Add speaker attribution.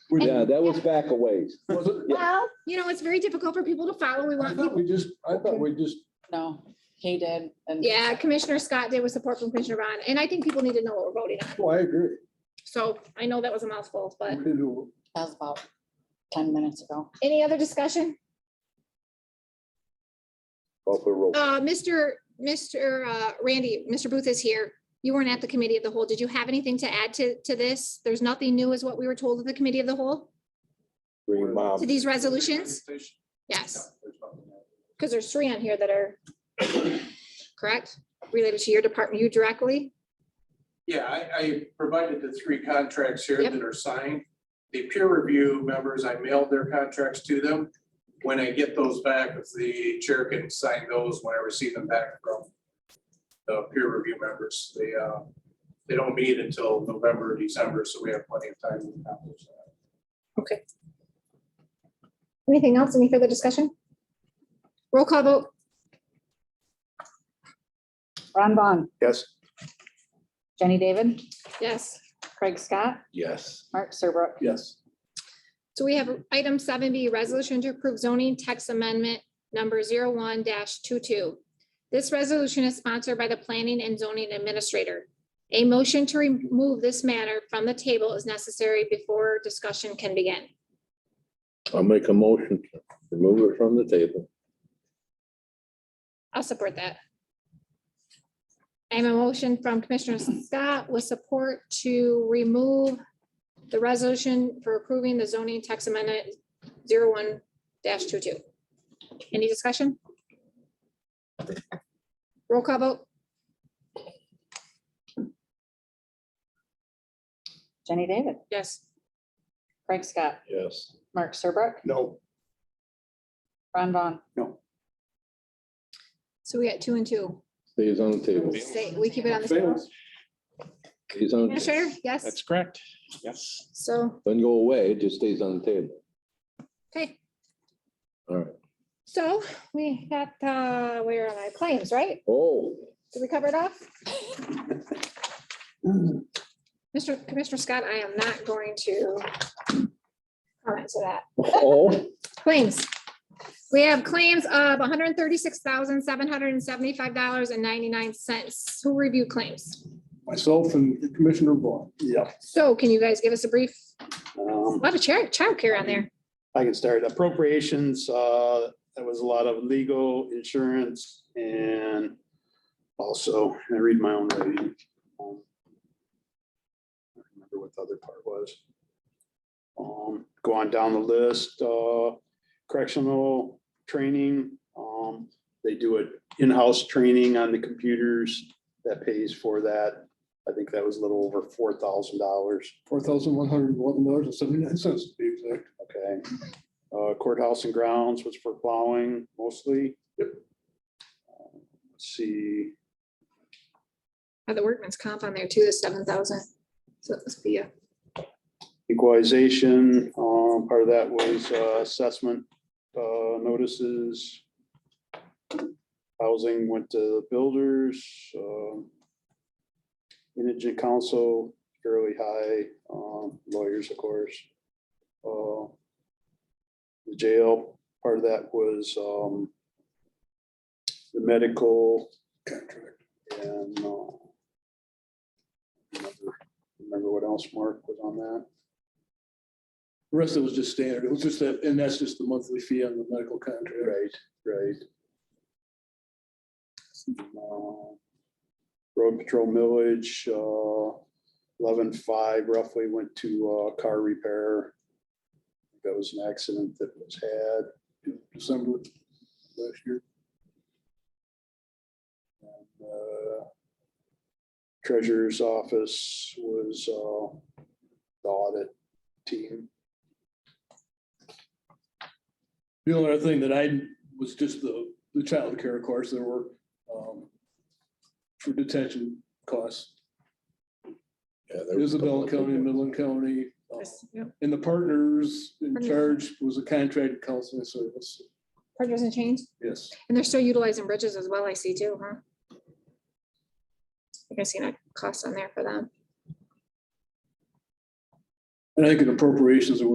Speaker 1: We're-
Speaker 2: Yeah, that was back a ways.
Speaker 1: Was it?
Speaker 2: Yeah.
Speaker 3: Well, you know, it's very difficult for people to follow. We
Speaker 1: I
Speaker 3: want
Speaker 1: thought
Speaker 3: people,
Speaker 1: we just, I thought we just,
Speaker 4: No, he did. and-
Speaker 3: yeah, Commissioner Scott did with support from Commissioner Ron, and I think people need to know what we're voting on.
Speaker 1: oh, I agree.
Speaker 3: So I know that was a mouthful,
Speaker 1: We
Speaker 3: but
Speaker 1: need to-
Speaker 4: That was about ten minutes ago.
Speaker 3: any other discussion?
Speaker 2: Call for roll.
Speaker 3: Uh, Mr. Mr. uh, Randy, Mr. Booth is here. You weren't at the committee of the whole. Did you have anything to add to, to this? There's nothing new is what we were told at the committee of the whole
Speaker 2: Bring your
Speaker 3: to
Speaker 2: mom.
Speaker 3: these resolutions? Yes, because there's three on here that are correct, related to your department, you directly.
Speaker 5: Yeah, I, I provided the three contracts here
Speaker 3: Yep.
Speaker 5: that are signed. The peer review members, I mailed their contracts to them. When I get those back, if the chair can sign those when I receive them back from the peer review members, they, uh, they don't meet until November, December, so we have plenty of time. to accomplish that.
Speaker 3: Anything else? Any further discussion? Roll call vote.
Speaker 4: Ron Vaughn,
Speaker 2: Yes.
Speaker 4: Jenny David,
Speaker 3: Yes.
Speaker 4: Craig Scott,
Speaker 2: Yes.
Speaker 4: Mark Serbrook.
Speaker 1: Yes.
Speaker 3: So we have item seven B, resolution to approve zoning text amendment number zero one dash This resolution is sponsored by the planning and zoning administrator. A motion to remove this matter from the table is necessary before discussion can begin.
Speaker 6: I'll make a motion to remove it from the table.
Speaker 3: I'll support that. I have a motion from Commissioner Scott with support to remove the resolution for approving the zoning text amendment zero one dash Any discussion? Roll call vote?
Speaker 4: Jenny David,
Speaker 3: Yes.
Speaker 4: Craig Scott,
Speaker 6: Yes.
Speaker 4: Mark Serbrook,
Speaker 1: No.
Speaker 4: Ron Vaughn.
Speaker 3: So we got two and two.
Speaker 6: Stays on the table.
Speaker 3: Stay- We keep it on the table.
Speaker 1: Fails.
Speaker 6: Stays on,
Speaker 3: Commissioner, yes,
Speaker 7: That's correct. Yes.
Speaker 3: so,
Speaker 6: doesn't go away, it just stays on the table.
Speaker 3: okay,
Speaker 6: All right.
Speaker 3: so we got, uh, where are my claims, right?
Speaker 6: Oh,
Speaker 3: Did we cover it off? Mr. Mm. Commissioner Scott, I am not going to comment to that.
Speaker 6: oh,
Speaker 3: Claims. We have claims of one hundred thirty-six thousand, seven hundred and seventy-five dollars and ninety-nine cents. Who reviewed claims?
Speaker 1: Myself and Commissioner Vaughn. Yeah.
Speaker 3: So can you guys give us a brief, a
Speaker 8: Um,
Speaker 3: lot of child childcare on there?
Speaker 8: I can start appropriations, uh, that was a lot of legal insurance and also, I read my own writing. Um, I don't Remember what the other part was. Um, go on down the list, uh, correctional training, um, they do it in-house training on the computers that pays for that. I think that was a little over four thousand dollars.
Speaker 1: Four thousand one hundred eleven dollars and seventy-nine cents to be exact.
Speaker 8: Okay. Uh, Courthouse and grounds was for plowing mostly. Uh, Let's see,
Speaker 3: Had the workman's comp on there too, the seven thousand. So it must be a,
Speaker 8: equalization, um, part of that was uh, assessment uh, notices. Housing went to the builders. um, Indigent council, fairly high, um, lawyers, of course. Uh, The jail, part of that was um, the medical contract and uh, remember- remember what else Mark was on that?
Speaker 1: The Rest of it was just standard. It was just that, and that's just the monthly fee on the medical contract.
Speaker 8: Right, right. Uh, Road patrol millage, uh, eleven five roughly went to, uh, car repair. That was an accident that was had.
Speaker 1: December last year.
Speaker 8: and, uh, Treasurer's office was, uh, the audit team.
Speaker 1: The only other thing that I was just the, the childcare, of course, there were, um, for detention costs.
Speaker 6: yeah, there was a couple
Speaker 1: Isabella
Speaker 6: of
Speaker 1: County,
Speaker 6: people.
Speaker 1: Midland County, um, and the partners in charge was a contracted counseling service.
Speaker 3: partners and change,
Speaker 1: Yes.
Speaker 3: and they're still utilizing bridges as well, I see too, huh? I can see that cost on there for them.
Speaker 1: And I think in appropriations, there